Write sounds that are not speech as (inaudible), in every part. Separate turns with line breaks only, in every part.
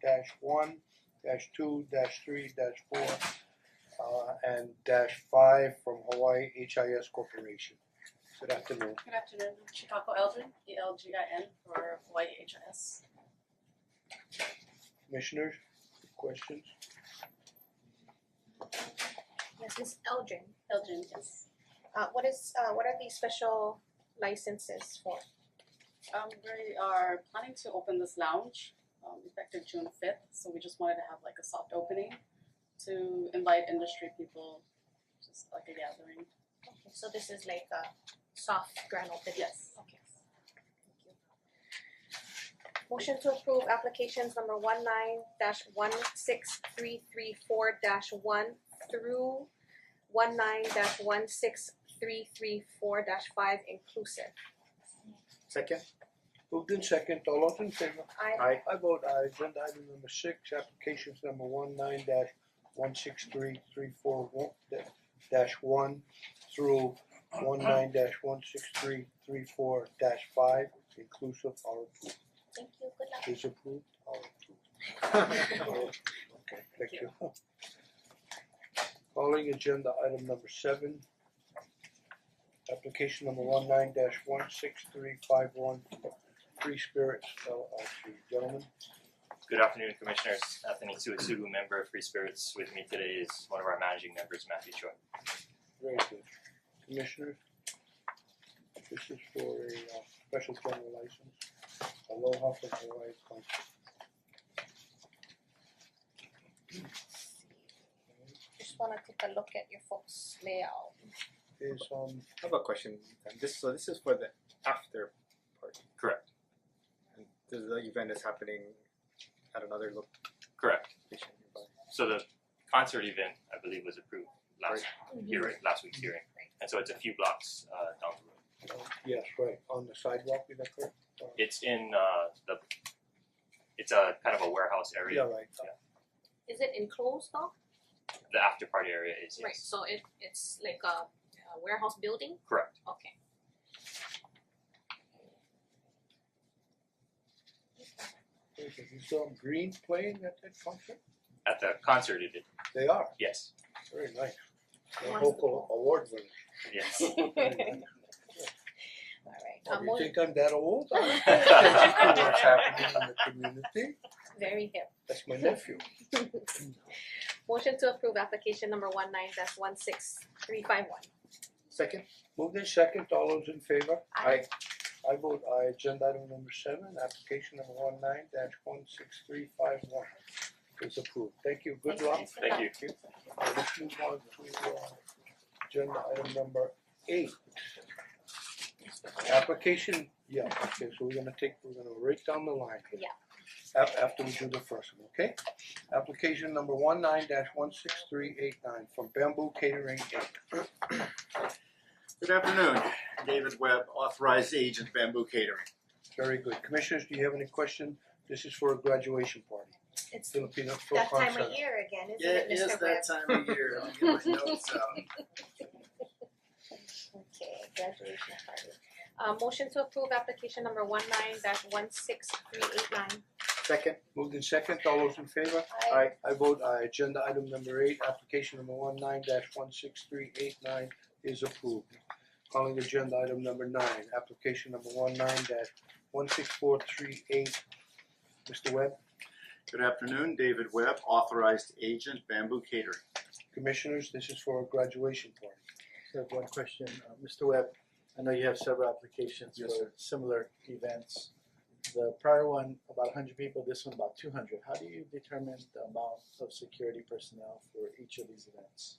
dash one, dash two, dash three, dash four, uh and dash five from Hawaii HIS Corporation. Good afternoon.
Good afternoon, Chicago Elgin, E L G I N for Hawaii H I S.
Commissioners, questions?
Yes, Ms. Elgin,
Elgin, yes.
uh what is uh what are these special licenses for?
Um we are planning to open this lounge um effective June fifth, so we just wanted to have like a soft opening to invite industry people, just like a gathering.
Okay, so this is like a soft grand
(laughs)
opening?
Yes.
Okay. Thank you. Motion to approve applications number one nine dash one six three three four dash one through one nine dash one six three three four dash five inclusive.
Second,
Moved in second, all those in favor?
I
aye,
I vote aye, agenda item number six, applications number one nine dash one six three three four one dash one through one nine dash one six three three four dash five inclusive are approved.
thank you, good luck.
Is approved, are approved. Okay, thank you. Calling agenda item number seven. Application number one nine dash one six three five one Free Spirits LLC. Gentlemen,
Good afternoon, Commissioners. Anthony Suetsugu, member of Free Spirits. With me today is one of our managing members, Matthew Choi.
very good. Commissioners, this is for a uh, special general license. Aloha from Hawaii Punch.
Just wanna take a look at your folks layout.
Is um
I have a question, and this, so this is for the after party,
Correct.
and this is the event is happening at another
Correct.
location nearby.
So the concert event, I believe, was approved last hearing, last week's hearing. And so it's a few blocks uh down the road.
uh, yes, right, on the sidewalk, is that correct? Uh,
It's in uh the it's a kind of a warehouse
Yeah,
area.
right, uh,
Is it enclosed though?
The after party area is
Right,
yes.
so it it's like a a warehouse building,
Correct.
okay.
Is um Green playing at that function?
At the concert it did.
They are,
Yes.
very nice. They're
Wants the
local award winners.
(laughs)
(laughs)
Yes.
Very
Alright,
nice.
uh
Oh, you
motion,
think I'm that old?
(laughs)
I don't know (laughs) What's happening in the community?
very hip. (laughs)
That's my nephew.
Motion to approve application number one nine dash one six three five one.
Second,
Move in second, all those in favor?
aye,
I vote aye, agenda item number seven, application number one nine dash one six three five one is approved. Thank you, good luck.
Thank you.
Uh, Let's move on to uh agenda item number eight. Application, yeah, okay, so we're gonna take, we're gonna right down the line.
Yeah.
Af- after we do the first one, okay? Application number one nine dash one six three eight nine from Bamboo Catering Inc.
Good afternoon, David Webb, authorized agent Bamboo Catering.
Very good. Commissioners, do you have any question? This is for a graduation party,
It's
Filipino for
that time of year again,
Yeah,
isn't it,
it is
Mister Webb?
that time of year, I'll get my notes out.
Okay, graduation party. Uh motion to approve application number one nine dash one six three eight nine.
second,
Moved in second, all those in favor?
aye,
I vote aye. Agenda item number eight, application number one nine dash one six three eight nine is approved. Calling agenda item number nine, application number one nine dash one six four three eight. Mister Webb,
Good afternoon, David Webb, authorized agent Bamboo Catering.
commissioners, this is for a graduation party.
I have one question, uh Mister Webb, I know you have several applications
Yes,
for similar events. The prior one, about hundred people, this one about two hundred, how do you determine the amount of security personnel for each of these events?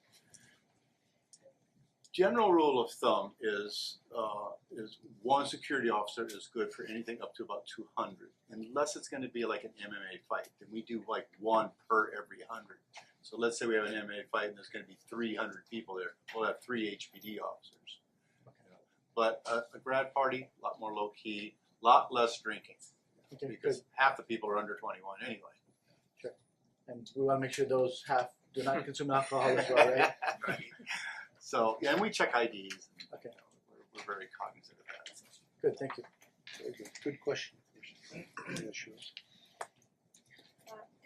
General rule of thumb is, uh, is one security officer is good for anything up to about two hundred. Unless it's gonna be like an MMA fight, then we do like one per every hundred. So let's say we have an MMA fight and there's gonna be three hundred people there, we'll have three HPD officers. But a, a grad party, a lot more low key, lot less drinking.
Okay, good,
because half the people are under twenty-one anyway.
and we wanna make sure those have, do not consume alcohol as well, Oh,
(laughs)
right?
(laughs) Right. So, yeah, and we check IDs. and, you
Okay.
know, We're, we're very cognizant of that.
Good, thank you.
Very good, good question, Commissioner. Yeah, sure.